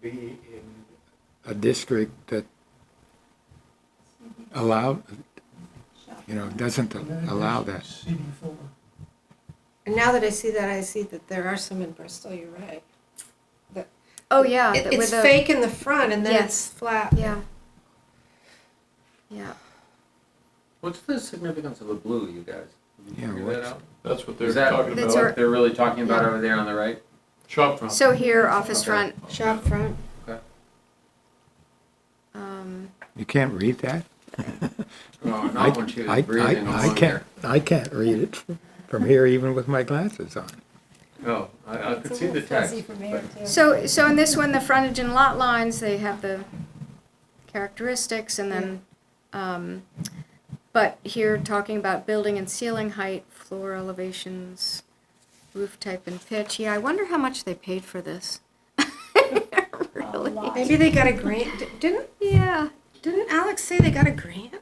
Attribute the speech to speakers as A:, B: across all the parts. A: be in a district that allow, you know, doesn't allow that.
B: CD four.
C: And now that I see that, I see that there are some in Bristol, you're right.
D: Oh yeah,
C: It-
D: that
C: It's
D: with a-
C: fake in the front and then it's
D: Yes.
C: flat.
D: Yeah. Yeah.
E: What's the significance of the blue, you guys? Did you
A: Yeah,
E: figure
A: what's-
E: that out?
F: That's what they're
E: Is that
F: talking
D: That's
F: about.
D: our-
E: what they're really talking about over there on the right?
F: Shop front.
D: So here, office
E: Okay.
D: front.
C: Shop front.
D: Um,
A: You can't read that?
E: Oh,
A: I-
E: not when she
A: I- I-
E: was breathing
A: I
E: along
A: can't-
E: there.
A: I can't read it from here even with my glasses on.
E: Oh, I, I could see the text. but-
D: so so in this one, the frontage and lot lines they have the characteristics, and then, um, but here talking about building and ceiling height, floor elevations, roof type and pitch. Yeah, I wonder how much they paid for this. really?
C: Maybe they got a grant. D- Didn't,
D: Yeah.
C: didn't Alex say they got a grant?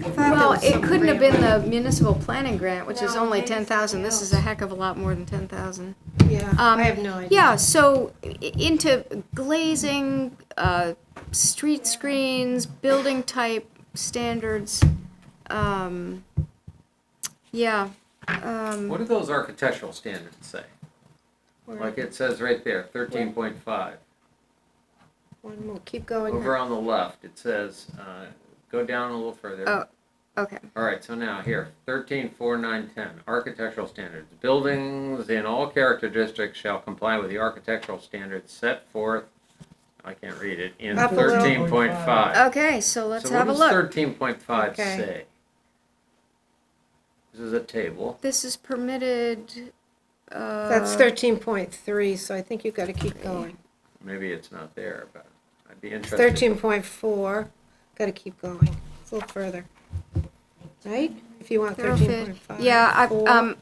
C: I thought there
D: Well,
C: was
D: it
C: some
D: couldn't have
C: grant.
D: been the municipal planning grant, which is
C: No,
D: only
C: maybe
D: ten thousand. This is a heck of a lot more than ten thousand.
C: Yeah,
D: um,
C: I have no idea.
D: Yeah, so i- into glazing, uh, street screens, building type standards, um, yeah, um,
E: What do those architectural standards say?
C: Where-
E: Like it says right there, thirteen point five.
C: One more. Keep going.
E: Over on the left, it says, uh, go down a little further.
D: Oh. okay.
E: All right, so now here, thirteen four nine ten, architectural standards. Buildings in all character districts shall comply with the architectural standards set forth, I can't read it, in
C: Up a little.
E: thirteen point five.
D: Okay, so Uh, let's
E: So
D: have a
E: What does
D: look.
E: thirteen point five
C: Okay.
E: say? This is a table.
D: This is permitted, uh.
C: That's thirteen point three, so I think you've got to keep going.
E: Maybe it's not there, but I'd be interested.
C: Thirteen point four, got to keep going. It's a little further. Right? If you want thirteen
D: Thoroughfare.
C: point five.
D: Yeah, I, um,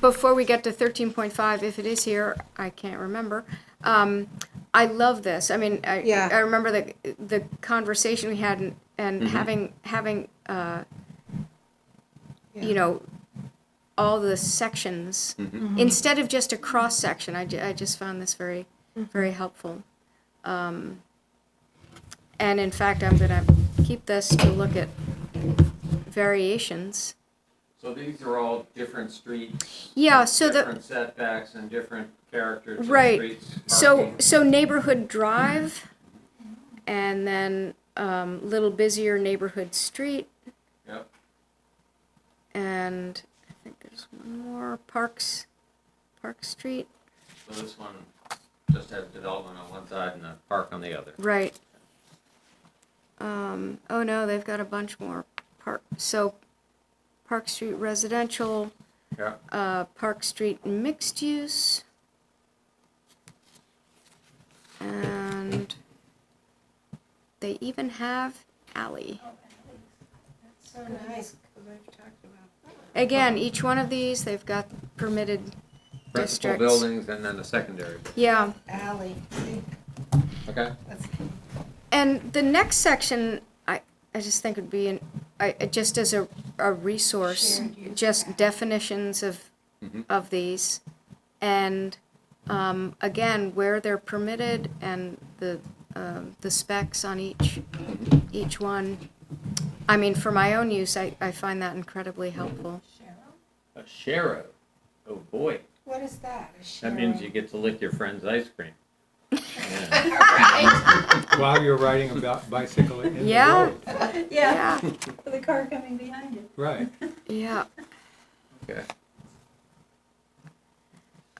D: before we get to thirteen point five, if it is here, I can't remember. Um, I love this. I mean, I,
C: Yeah.
D: I remember the, the conversation we had and, and having, having, uh, you
C: Yeah.
D: know, all the sections, instead of just a cross section, I, ju- I just found this very,
C: Mm-hmm.
D: very helpful. Um, and in fact, I'm gonna keep this to look at variations.
E: So these are all different streets.
D: Yeah, so the.
E: Different setbacks and different characters of
D: Right.
E: streets.
D: So,
E: parking.
D: so neighborhood drive, and then um, little busier neighborhood street,
E: Yep.
D: and I think there's one more Parks, Park Street.
E: So this one just has development on one side and a park on the other.
D: Right. Um, oh no, they've got a bunch more park. So, Park Street residential,
E: Yeah.
D: uh, Park Street mixed use, and they even have alley.
C: So nice, 'cause I've talked about
D: Again, each one of these, they've got permitted districts.
E: Principal buildings and then the secondary.
D: Yeah,
C: alley.
E: Okay.
C: That's
D: and the next section, I, I just think would be, an I, I- just as a, a resource,
C: Shared use
D: just definitions of,
E: Mhm.
D: of these. And, um, again, where they're permitted and the, um, the specs on each, each one. I mean, for my own use, I, I find that incredibly helpful.
E: A sheriff. Oh boy,
C: What is that? A
E: that means you get to lick your friend's ice cream. Yeah.
A: While you're riding a bi- bicycle in the
D: Yeah.
A: road.
G: Yeah, with the car coming behind you.
A: Right.
D: Yeah.
E: Okay.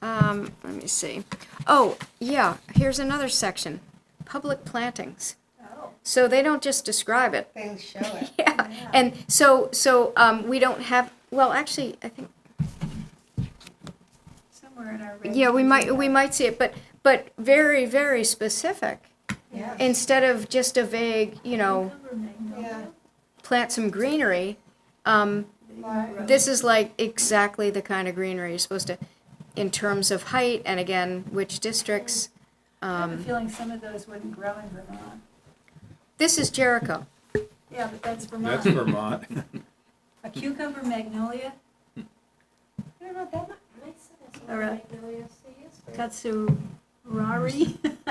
D: Um, let me see. Oh, yeah, here's another section, public plantings.
G: Oh.
D: So they don't just describe it.
C: They show it.
D: Yeah, Uh, and so, so, um, we don't have, well, actually, I think,
G: Somewhere in our.
D: yeah, we might, we might see it, but, but very, very specific.
G: Yeah.
D: Instead of just a vague, you know,
C: Yeah.
D: plant some greenery, um, This is like exactly the kind of greenery you're supposed to, in terms of height, and again, which districts.
G: I have a
D: Um,
G: feeling some of those wouldn't grow in Vermont.
D: this is Jericho.
G: Yeah, but that's
A: That's
G: Vermont.
A: Vermont.
G: A cucumber magnolia,
C: I don't know, that might,
G: or a katsurari.